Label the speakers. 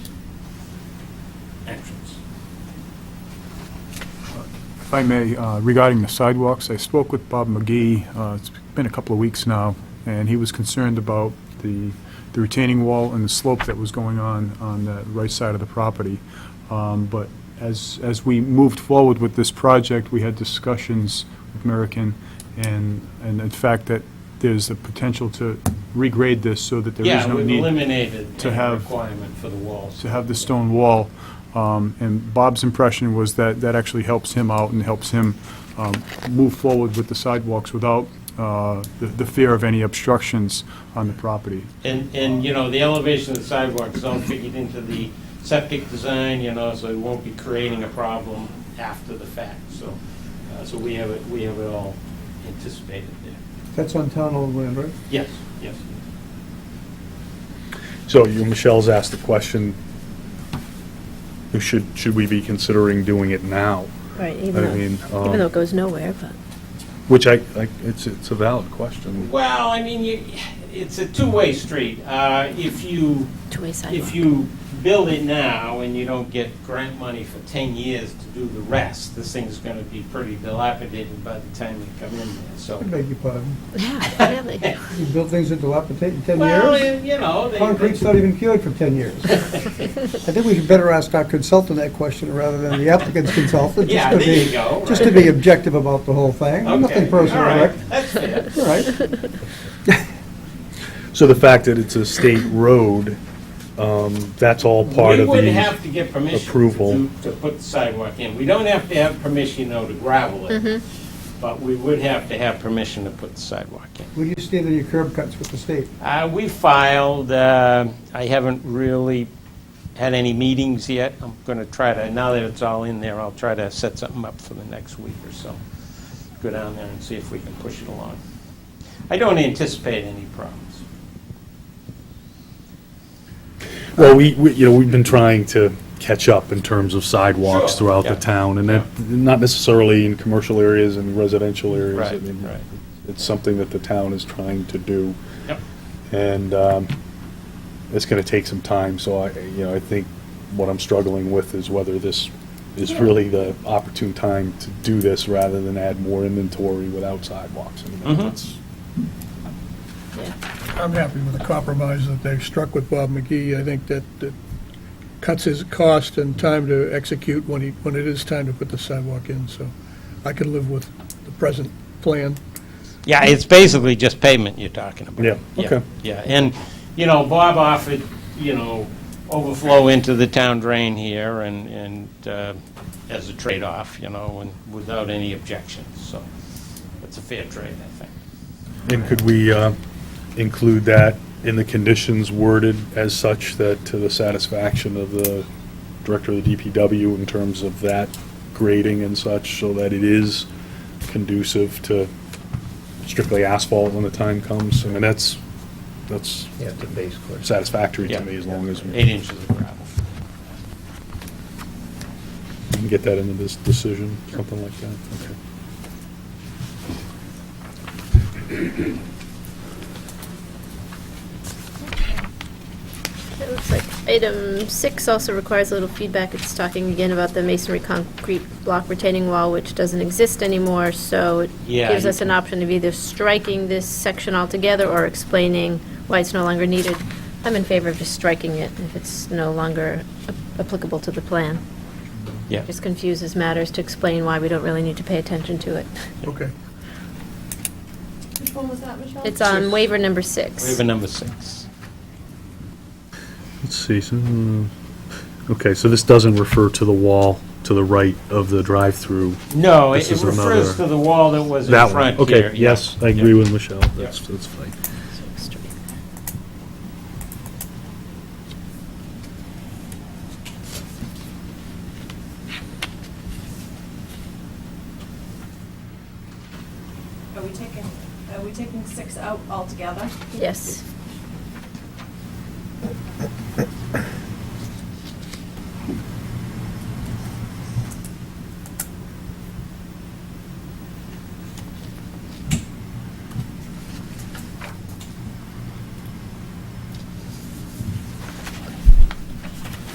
Speaker 1: If I may, uh, regarding the sidewalks, I spoke with Bob McGee, uh, it's been a couple of weeks now, and he was concerned about the the retaining wall and the slope that was going on on the right side of the property. Um, But as, as we moved forward with this project, we had discussions with Merrickin, and, and the fact that there's a potential to regrade this so that there is
Speaker 2: Yeah,
Speaker 1: no
Speaker 2: we've
Speaker 1: need
Speaker 2: eliminated
Speaker 1: to
Speaker 2: the
Speaker 1: have-
Speaker 2: requirement for the walls.
Speaker 1: to have the stone wall. Um, And Bob's impression was that that actually helps him out and helps him um, move forward with the sidewalks without uh, the the fear of any obstructions on the property.
Speaker 2: And, and, you know, the elevation of the sidewalks all figured into the septic design, you know, so it won't be creating a problem after the fact, so, uh, so we have it, we have it all anticipated there.
Speaker 3: That's on town owned land, right?
Speaker 2: Yes, yes.
Speaker 4: So you, Michelle's asked the question, should, should we be considering doing it now?
Speaker 5: Right,
Speaker 4: I
Speaker 5: even though,
Speaker 4: mean, um,
Speaker 5: even though it goes nowhere, but.
Speaker 4: Which I, I- it's, it's a valid question.
Speaker 2: Well, I mean, you, it's a two-way street. Uh, if you,
Speaker 5: two-way sidewalk.
Speaker 2: if you build it now and you don't get grant money for 10 years to do the rest, this thing's going to be pretty dilapidated by the time you come in there, so.
Speaker 3: I beg your pardon.
Speaker 5: Yeah, really.
Speaker 3: You build things that dilapidate in 10
Speaker 2: Well,
Speaker 3: years?
Speaker 2: you know, they-
Speaker 3: Concrete's not even cured for 10 years. I think we should better ask our consultant that question rather than the applicant's consultant. just
Speaker 2: Yeah,
Speaker 3: to
Speaker 2: there
Speaker 3: be-
Speaker 2: you go,
Speaker 3: Just to
Speaker 2: right.
Speaker 3: be objective about the whole thing. Nothing
Speaker 2: Okay,
Speaker 3: personal,
Speaker 2: all right,
Speaker 3: Rick.
Speaker 2: That's fair.
Speaker 3: All right.
Speaker 4: So the fact that it's a state road, um, that's all part
Speaker 2: We
Speaker 4: of the...
Speaker 2: would have to get permission to
Speaker 4: approval.
Speaker 2: do- to put the sidewalk in. We don't have to have permission, though, to gravel it, but we would have to have permission to put the sidewalk in.
Speaker 3: Where do you stand on your curb cuts with the state?
Speaker 2: Uh, We filed, uh, I haven't really had any meetings yet. I'm going to try to, now that it's all in there, I'll try to set something up for the next week or so. Go down there and see if we can push it along. I don't anticipate any problems.
Speaker 4: Well, we, we- you know, we've been trying to catch up in terms of sidewalks
Speaker 2: Sure,
Speaker 4: throughout
Speaker 2: yeah.
Speaker 4: the town, and that, not necessarily in commercial areas and residential areas. I
Speaker 2: Right,
Speaker 4: mean,
Speaker 2: right.
Speaker 4: It's something that the town is trying to do.
Speaker 2: Yep.
Speaker 4: And um, it's going to take some time, so I, you know, I think what I'm struggling with is whether this is really the opportune time to do this rather than add more inventory without sidewalks. I mean,
Speaker 2: Mhm.
Speaker 4: that's-
Speaker 6: I'm happy with the compromise that they've struck with Bob McGee. I think that that cuts his cost and time to execute when he, when it is time to put the sidewalk in, so I can live with the present plan.
Speaker 2: Yeah, it's basically just pavement you're talking about.
Speaker 4: Yeah, okay.
Speaker 2: Yeah, and, you know, Bob offered, you know, overflow into the town drain here and, and uh, as a trade-off, you know, and without any objections, so it's a fair trade, I think.
Speaker 4: And could we uh, include that in the conditions worded as such that to the satisfaction of the director of the DPW in terms of that grading and such, so that it is conducive to strictly asphalt when the time comes? I mean, that's, that's
Speaker 7: Yeah, the base course.
Speaker 4: satisfactory
Speaker 2: Yeah.
Speaker 4: to me as long as we
Speaker 2: Eight inches of gravel.
Speaker 4: can get that into this decision, something like that. Okay.
Speaker 5: It looks like item six also requires a little feedback. It's talking again about the masonry concrete block retaining wall, which doesn't exist anymore, so it
Speaker 2: Yeah,
Speaker 5: gives
Speaker 2: you
Speaker 5: us an option of either striking this section altogether or explaining why it's no longer needed. I'm in favor of just striking it if it's no longer a- applicable to the plan.
Speaker 2: Yeah.
Speaker 5: Just confuses matters to explain why we don't really need to pay attention to it.
Speaker 6: Okay.
Speaker 8: Which one was that, Michelle?
Speaker 5: It's on waiver number six.
Speaker 2: Waiver number six.
Speaker 4: Let's see, so, hmm, okay, so this doesn't refer to the wall to the right of the drive-through
Speaker 2: No,
Speaker 4: This
Speaker 2: it it
Speaker 4: is
Speaker 2: refers
Speaker 4: another-
Speaker 2: to the wall that was in
Speaker 4: That
Speaker 2: front
Speaker 4: one,
Speaker 2: here.
Speaker 4: okay,
Speaker 2: yeah,
Speaker 4: yes, I
Speaker 2: yeah.
Speaker 4: agree with Michelle, that's, that's fine.
Speaker 8: Are we taking, are we taking six out altogether?
Speaker 5: Yes.